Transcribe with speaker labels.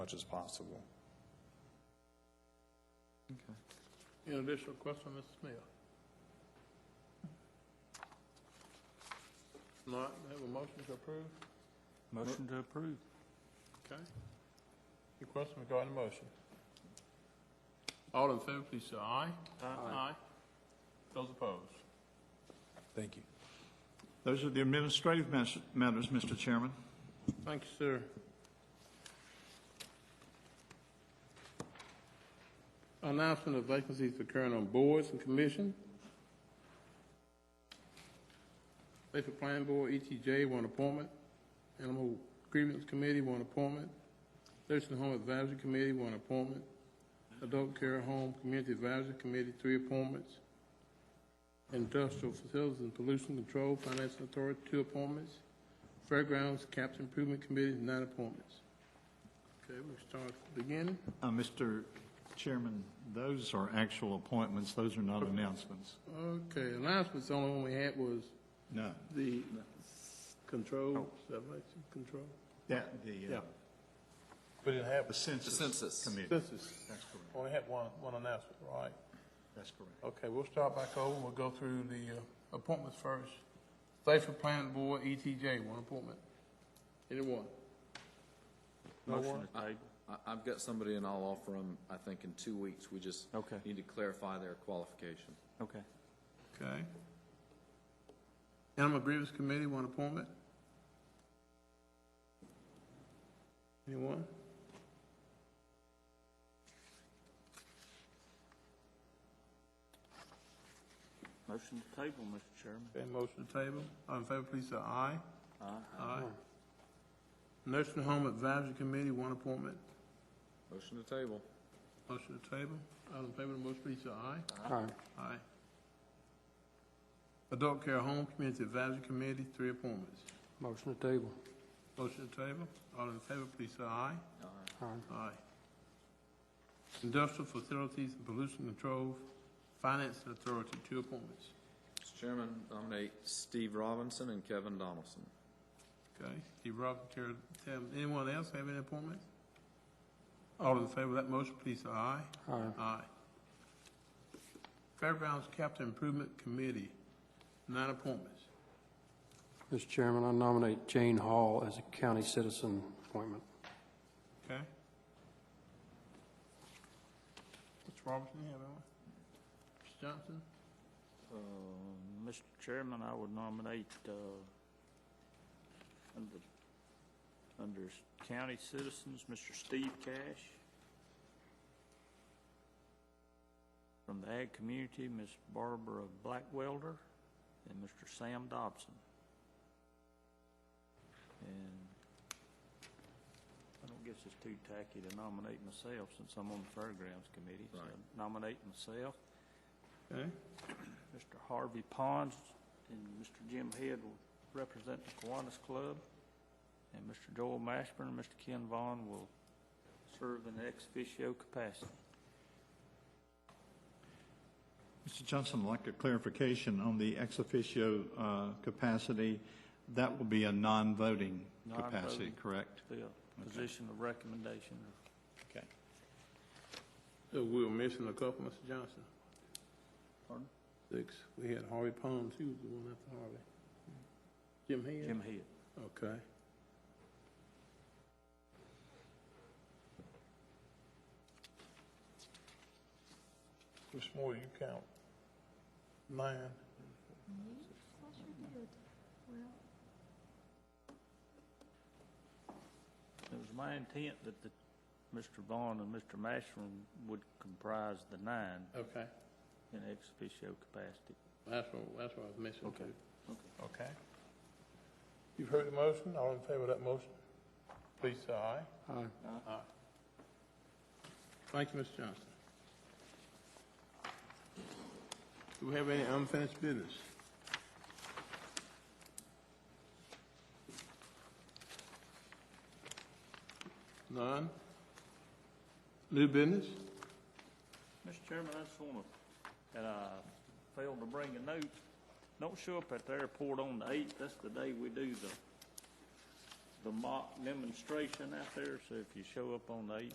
Speaker 1: much as possible.
Speaker 2: Any additional question, Mr. Smith? Not, have a motion to approve?
Speaker 3: Motion to approve.
Speaker 2: Okay. Any questions regarding the motion? All in favor, please say aye. Aye. Those opposed?
Speaker 1: Thank you.
Speaker 4: Those are the administrative mas- matters, Mr. Chairman.
Speaker 2: Thank you, sir. Announcement of vacancies occurring on boards and commission. Lakeville Planning Board, ETJ, one appointment. Animal Grievance Committee, one appointment. Nursing Home Advisory Committee, one appointment. Adult Care Home Community Advisory Committee, three appointments. Industrial Facilities and Pollution Control Financial Authority, two appointments. Fairgrounds Capital Improvement Committee, nine appointments. Okay, we start at the beginning.
Speaker 4: Uh, Mr. Chairman, those are actual appointments, those are not announcements.
Speaker 2: Okay, announcements, the only one we had was
Speaker 4: No.
Speaker 2: the control, sublection control.
Speaker 4: That, the, uh,
Speaker 2: We didn't have.
Speaker 4: the Census
Speaker 5: census.
Speaker 4: Committee. That's
Speaker 2: Census,
Speaker 4: correct,
Speaker 2: only had one, one announcement, right?
Speaker 4: that's correct.
Speaker 2: Okay, we'll start back over, we'll go through the uh, appointments first. Thafer Planning Board, ETJ, one appointment. Anyone? No one?
Speaker 3: Motion to table.
Speaker 5: I, I've got somebody and I'll offer them, I think, in two weeks. We just
Speaker 3: Okay.
Speaker 5: need to clarify their qualification.
Speaker 3: Okay.
Speaker 2: Okay. Animal Grievance Committee, one appointment. Anyone?
Speaker 3: Motion to table, Mr. Chairman.
Speaker 2: Okay, motion to table. All in favor, please say aye. Aye. Nursing Home Advisory Committee, one appointment.
Speaker 5: Motion to table.
Speaker 2: Motion to table. All in favor of the motion, please say aye. Aye. Aye. Adult Care Home Community Advisory Committee, three appointments.
Speaker 6: Motion to table.
Speaker 2: Motion to table. All in favor, please say aye. Aye. Aye. Industrial Facilities and Pollution Control Finance Authority, two appointments.
Speaker 5: Mr. Chairman, nominate Steve Robinson and Kevin Donaldson.
Speaker 2: Okay, Steve Robinson, Terry Tam, anyone else have any appointments? All in favor of that motion, please say aye.
Speaker 6: Aye.
Speaker 2: Aye. Fairgrounds Capital Improvement Committee, nine appointments.
Speaker 6: Mr. Chairman, I nominate Jane Hall as a county citizen appointment.
Speaker 2: Okay? Mr. Robertson, you have anyone? Mr. Johnson?
Speaker 3: Uh, Mr. Chairman, I would nominate, uh, under, under county citizens, Mr. Steve Cash. From the ag community, Ms. Barbara Blackwelder and Mr. Sam Dobson. And I don't guess it's too tacky to nominate myself since I'm on the fairgrounds committee, so
Speaker 5: Right.
Speaker 3: I nominate myself.
Speaker 2: Okay,
Speaker 3: Mr. Harvey Pons and Mr. Jim Head will represent the Kiwanis Club, and Mr. Joel Mashburn and Mr. Ken Vaughn will serve in ex officio capacity.
Speaker 4: Mr. Johnson, I'd like a clarification on the ex officio uh, capacity. That will be a non-voting capacity,
Speaker 3: Non-voting.
Speaker 4: correct?
Speaker 3: The position of recommendation.
Speaker 4: Okay.
Speaker 2: so we were missing a couple, Mr. Johnson.
Speaker 3: Pardon?
Speaker 2: Six, we had Harvey Pons, he was the one after Harvey. Jim Head?
Speaker 3: Jim Head.
Speaker 2: Okay. Which more you count? Nine.
Speaker 3: It was my intent that the, Mr. Vaughn and Mr. Mashburn would comprise the nine
Speaker 2: Okay,
Speaker 3: in ex officio capacity.
Speaker 2: that's what, that's what I was missing
Speaker 3: Okay.
Speaker 2: too.
Speaker 3: Okay.
Speaker 2: Okay. You've heard the motion, all in favor of that motion? Please say aye.
Speaker 6: Aye.
Speaker 2: Thank you, Mr. Johnson. Do we have any unfinished business? None? New business?
Speaker 3: Mr. Chairman, I just want to, and I failed to bring a note, don't show up at the airport on the eighth, that's the day we do the the mock demonstration out there, so if you show up on the eighth,